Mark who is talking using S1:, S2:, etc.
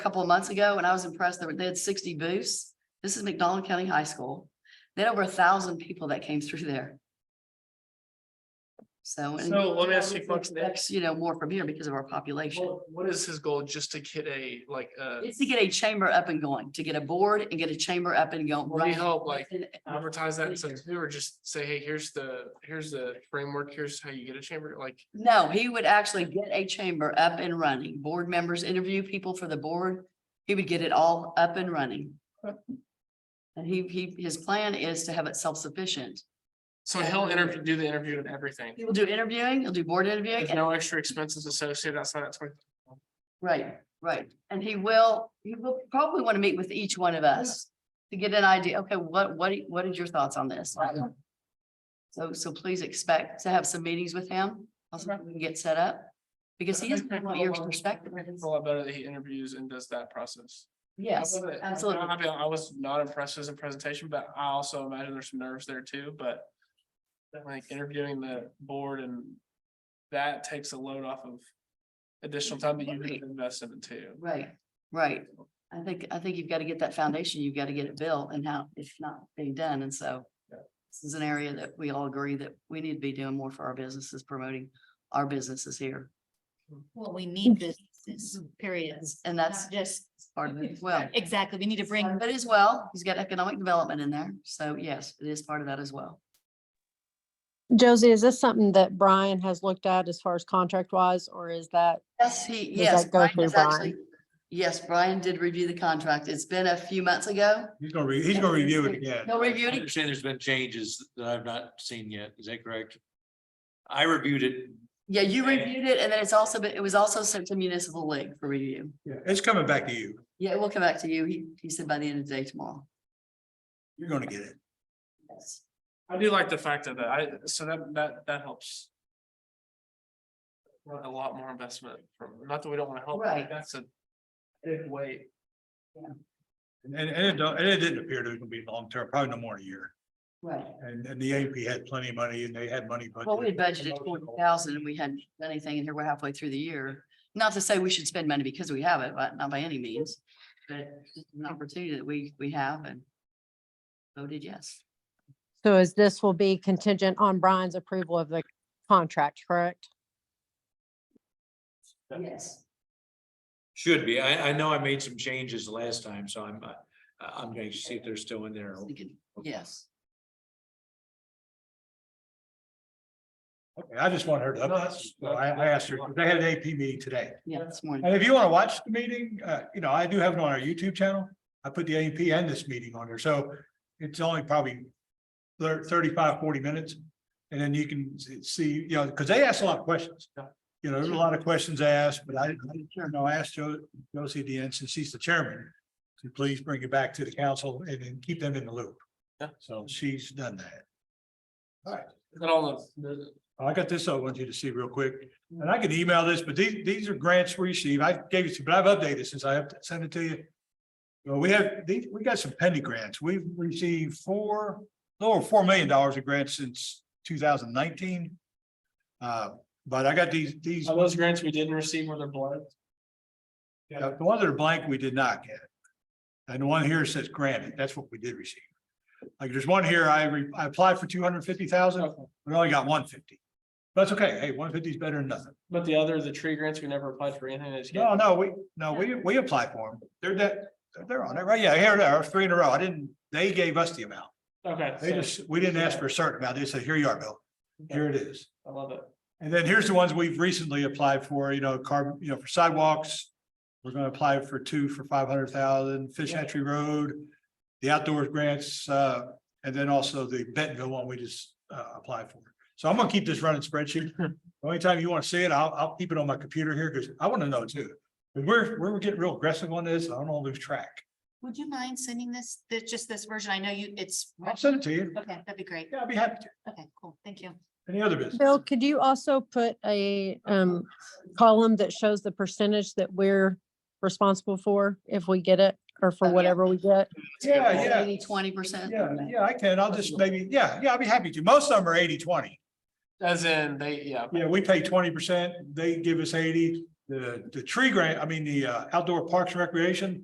S1: couple of months ago and I was impressed. They were- They had sixty booths. This is McDonald County High School. They had over a thousand people that came through there. So. and
S2: So let me ask
S1: we
S2: you a question.
S1: expect, You know, more from here because of our population.
S2: What what is his goal? Just to get a, like, uh,
S1: It's to get a chamber up and going, to get a board and get a chamber up and going.
S2: Will you
S1: right
S2: help, like,
S1: within-
S2: advertise that in some too, or just say, hey, here's the, here's the framework, here's how you get a chamber, like.
S1: No, he would actually get a chamber up and running. Board members interview people for the board. He would get it all up and running. And he, he, his plan is to have it self-sufficient.
S2: So he'll interview, do the interview and everything.
S1: He will do interviewing, he'll do board interviewing,
S2: There's
S1: and-
S2: no extra expenses associated outside that twenty.
S1: right, right. And he will, he will probably want to meet with each one of us to get an idea, okay, what, what, what are your thoughts on this? So, so please expect to have some meetings with him, also we can get set up, because he is want your perspective.
S2: It's a lot better that he interviews and does that process. I
S1: Yes,
S2: love it. I-
S1: absolutely.
S2: I mean, I was not impressed with the presentation, but I also imagine there's some nerves there too, but like interviewing the board and that takes a load off of additional time that you
S1: Right.
S2: could invest in it too.
S1: Right, right. I think, I think you've got to get that foundation, you've got to get it built and how it's not being done. And so
S2: Yeah.
S1: this is an area that we all agree that we need to be doing more for our businesses, promoting our businesses here.
S3: Well, we need businesses, periods.
S1: And that's
S3: Just,
S1: part of it as well.
S3: exactly, we need to bring,
S1: But as well, he's got economic development in there. So yes, it is part of that as well.
S4: Josie, is this something that Brian has looked at as far as contract wise, or is that,
S1: Yes, he,
S4: Does
S1: yes.
S4: that go
S1: Brian
S4: through
S1: has actually- Yes, Brian did review the contract. It's been a few months ago.
S5: He's gonna, re- he's gonna review it again.
S1: He'll
S6: I
S1: review it.
S6: understand there's been changes that I've not seen yet. Is that correct? I reviewed it.
S1: Yeah, you
S6: Okay.
S1: reviewed it and then it's also, been it was also sent to municipal league for review.
S5: Yeah, it's coming back to you.
S1: Yeah, we'll come back to you. He, he said by the end of the day tomorrow.
S5: You're gonna get it.
S1: Yes.
S2: I do like the fact that I, so that, that, that helps. Want A lot more investment from, not that we don't want to help,
S1: Right.
S2: but that's a big weight.
S5: And, and it don't, and it didn't appear to be long term, probably no more than a year.
S1: Right.
S5: And, and the AP had plenty of money and they had money. budgeted
S1: Well, we had
S5: for
S1: budgeted forty
S5: promotional.
S1: thousand and we hadn't done anything and here we're halfway through the year. Not to say we should spend money because we have it, but not by any means. But it's an opportunity that we, we have and voted yes.
S4: so is this will be contingent on Brian's approval of the contract, correct?
S6: Yeah.
S1: Yes.
S6: Should be. I, I know I made some changes last time, so I'm, uh, I'm going to see if they're still in there.
S1: Yes.
S5: Okay, I just want her
S2: No,
S5: to,
S2: that's-
S5: so I, I asked her, they had an AP meeting today.
S1: Yeah, this morning.
S5: And if you wanna watch the meeting, uh, you know, I do have it on our YouTube channel. I put the AP and this meeting on there, so it's only probably thir- 35, 40 minutes. And then you can s- see, you know, because they asked a lot of questions. You know, there's a lot of questions asked, but I, I
S1: Sure.
S5: No, I asked Jo- Josie at the end, since she's the chairman, to please bring it back to the council and then keep them in the loop.
S2: Yeah.
S5: So she's done that.
S2: That all the,
S5: I got this, I want you to see real quick, and I can email this, but these, these are grants we received. I gave you, some, but I've updated since I up- sent it to you. Well, we have, these, we got some pending grants. We've received four, a little over four million dollars of grants since two thousand nineteen. Uh, but I got these, these. uh,
S2: all those grants we didn't receive were the blood.
S5: Yeah, the ones that are blank, we did not get. And the one here says granted, that's what we did receive. Like, there's one here, I, re- I applied for two hundred fifty thousand, we only got one fifty. That's okay, hey, one fifty is better than nothing.
S2: But the other, the tree grants, we never applied for anything this year.
S5: No, no, we, no, we, we applied for them, they're that, they're on it, right, yeah, here, there are three in a row, I didn't, they gave us the amount.
S2: Okay.
S5: They
S2: so-
S5: just, we didn't ask for a certain amount, they said, here you are, Bill, here it is.
S2: I love it.
S5: And then here's the ones we've recently applied for, you know, carbon, you know, for sidewalks. We're gonna apply for two for five hundred thousand, Fish Hatchery Road, the outdoors grants, uh, and then also the Bentonville one we just uh applied for. So I'm gonna keep this running spreadsheet. The Only time you wanna see it, I'll I'll keep it on my computer here, because I wanna know too. And We're we're getting real aggressive on this, I don't wanna lose track.
S3: would you mind sending this, there's just this version, I know you, it's,
S5: I'll send it to you.
S3: okay, that'd be great,
S5: Yeah, I'd be happy to.
S3: okay, cool, thank you.
S5: Any other business?
S4: Bill, could you also put a um column that shows the percentage that we're responsible for if we get it or
S1: Oh,
S4: for
S1: yeah.
S4: whatever we get?
S5: Yeah, yeah.
S1: Eighty, twenty percent.
S5: Yeah, yeah, I can. I'll just maybe, yeah, yeah, I'd be happy to. Most of them are 80-20.
S2: As in, they, yeah,
S5: Yeah, we pay twenty percent, they give us eighty, the, the tree grant, I mean, the uh, outdoor parks and recreation,